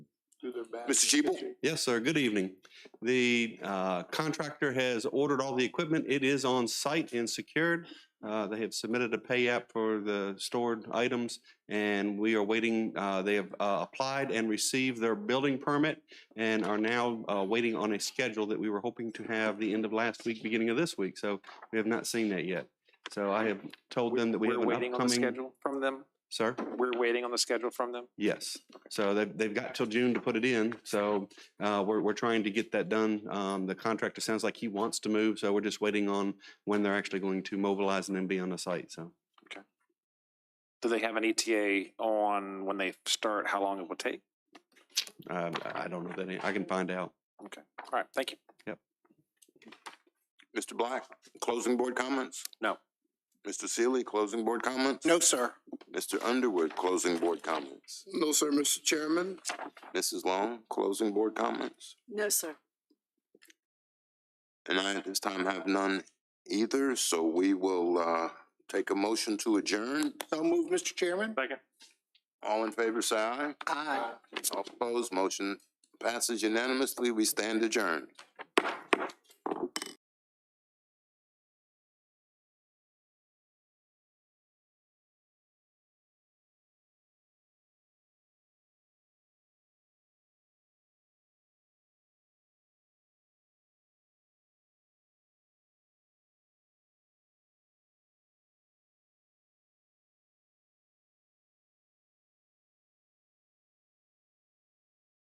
Mr. Cheeple? Yes, sir. Good evening. The uh, contractor has ordered all the equipment. It is on site and secured. Uh, They have submitted a pay app for the stored items, and we are waiting. uh, They have uh, applied and received their building permit and are now uh, waiting on a schedule that we were hoping to have the end of last week, beginning of this week. So we have not seen that yet. So I have told them that we have We're an waiting on the upcoming. schedule from them. Sir? We're waiting on the schedule from them. Yes. So they've, they've got till June to put it in. So uh, we're, we're trying to get that done. Um, The contractor sounds like he wants to move, so we're just waiting on when they're actually going to mobilize and then be on the site, so. Do they have an ETA on when they start, how long it will take? um, I I don't know that, any- I can find out. All right, thank you. Mr. Black, closing board comments? No. Mr. Sealy, closing board comments? No, sir. Mr. Underwood, closing board comments? No, sir, Mr. Chairman. Mrs. Long, closing board comments? No, sir. And I at this time have none either, so we will, uh, take a motion to adjourn. So move, Mr. Chairman. Second. All in favor, say aye. Aye. All opposed, motion passes unanimously. We stand adjourned.